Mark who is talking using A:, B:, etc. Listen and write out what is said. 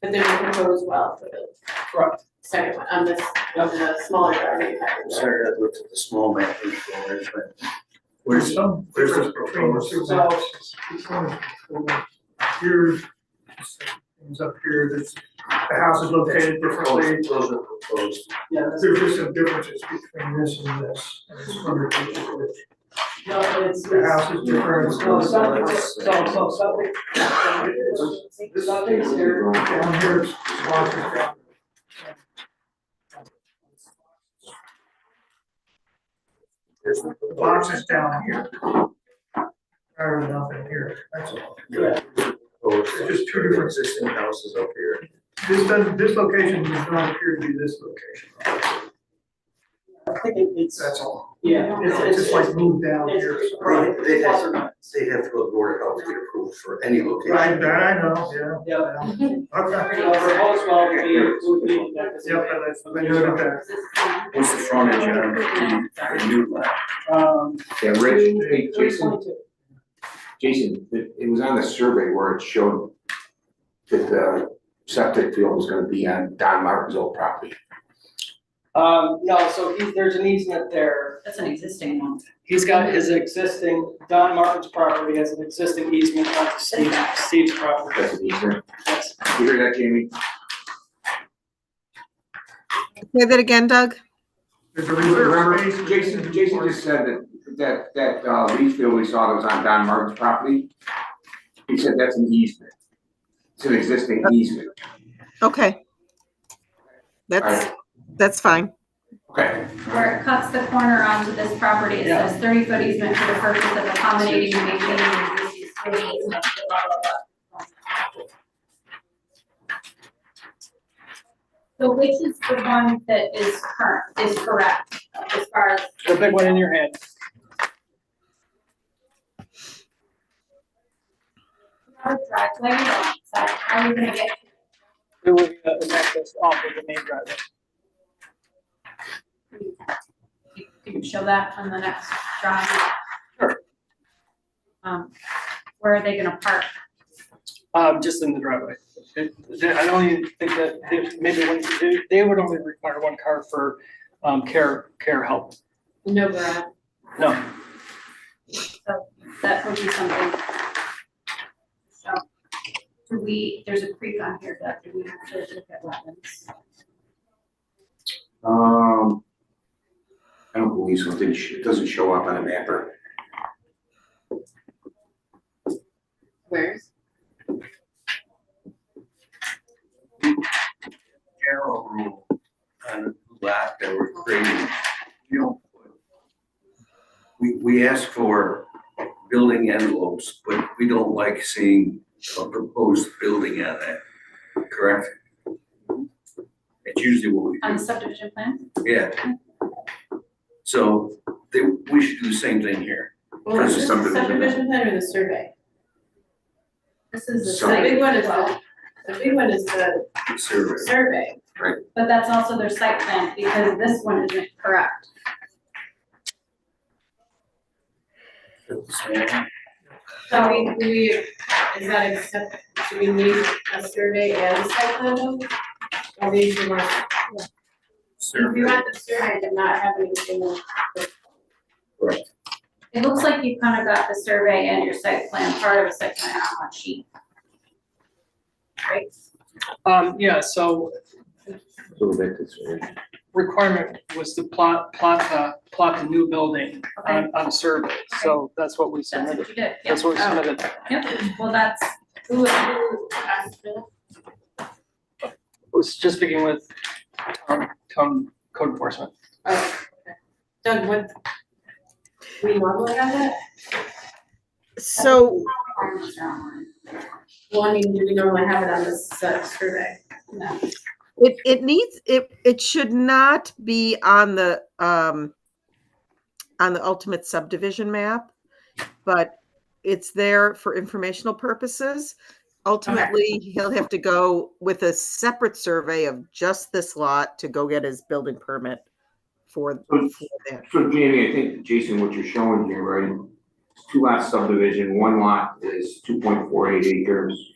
A: But there's a proposed well for the
B: Correct.
A: second one, on this, on the smaller property.
C: Sorry, I looked at the small map before, but
B: There's
C: where's,
B: some
C: where's the
B: difference between the two
C: proposed?
B: houses. This one is over Here, this thing's up here, this, the house is located differently.
C: those those are proposed.
B: Yeah, there's just some differences between this and this. I just wondered if it would-
A: No, it's,
B: The house is different.
C: No, it's not. It's-
B: This is here, down here is larger ground.
C: Here's the
B: The
C: proposed.
B: box is down here. Higher than nothing here, that's all.
C: Proposed.
B: It's just two different-
C: Existing houses up here.
B: This doesn't, this location does not appear to be this location.
A: I think it- it's,
B: That's all.
A: yeah, it's,
B: It's
A: it's,
B: just like moved down here.
A: it's.
C: Right, they
A: it's-
C: have, they have to go to Board of Health to get approved for any location.
B: Right, that I know, yeah.
D: Yeah.
B: Okay.
D: The proposed well would be, would be,
B: Yep, I I noted that.
E: What's the front edge on the, the new lot?
D: um,
F: Yeah, Rich, hey,
D: three
F: Jason,
D: twenty-two.
F: Jason, it, it was on the survey where it showed that the septic field was gonna be on Don Martin's old property.
D: Um, no, so he, there's an easement there.
G: That's an existing one.
D: He's got his existing, Don Martin's property has an existing easement on Steve, Steve's property.
F: That's an easement.
D: Yes.
F: You hear that, Jamie?
H: Say that again, Doug?
B: There's a
F: Remember,
B: reserve space.
F: Jason, Jason just said that, that, that, uh, leach field we saw that was on Don Martin's property. He said that's an easement. It's an existing easement.
H: Okay. That's, that's fine.
F: Okay.
G: Where it cuts the corner onto this property, it says thirty foot easement for the purpose of accommodating and maintaining the existing swimming easement, blah, blah, blah. So which is the one that is current, is correct, as far as
D: The big one in your hand.
G: our driveway or on the side, how are we gonna get?
D: It would, uh, an access off of the main driveway.
G: You can show that on the next drawing.
D: Sure.
G: Um, where are they gonna park?
D: Um, just in the driveway. It- I don't even think that, they- maybe when, they- they would only require one car for, um, care, care help.
A: No, garage.
D: No,
G: So that would be something. So, do we, there's a creek on here, but do we have to look at wetlands?
F: Um, I don't believe so. It didn't, sh- it doesn't show up on the mapper.
A: where's?
C: General rule on lot that we're creating, you don't put. We, we ask for building envelopes, but we don't like seeing a proposed building on that, correct? It's usually what we do.
G: On the subdivision Um, plan?
C: Yeah. So they, we should do the same thing here.
A: Well, is this
C: That's the
A: the
C: subdivision.
A: subdivision plan or the survey? This is the, the
F: Survey.
A: big one is the, the big one is the
C: Survey.
A: survey.
G: But that's also their site plan, because this one isn't correct.
A: So we, do we, is that accept, do we need a survey and a site plan though? Or we should want, if we
C: Survey.
A: want the survey to not have anything else.
G: It looks like you kind of got the survey and your site plan, part of a site plan on one sheet. Right?
D: um, yeah, so
F: A little bit this way.
D: requirement was to plot, plot, uh, plot the new building
G: Okay,
D: on, on survey, so that's what we
G: that's
D: submitted.
G: what you did,
D: Um, That's
G: yep,
D: what we
A: Oh.
D: submitted.
G: yep, well, that's,
A: Who, who asked for that?
D: I was just speaking with town, town code enforcement.
A: Oh, okay. Doug, what? We normally have that?
H: So,
G: requirements are on one.
A: Well, I mean, do we normally have it on this uh, survey?
H: it, it needs, it, it should not be on the, um, on the ultimate subdivision map, but it's there for informational purposes. Ultimately, he'll have to go with a separate survey of just this lot to go get his building permit for, for that.
F: So Jamie, I think, Jason, what you're showing here, right, two lot subdivision, one lot is two point four eight acres.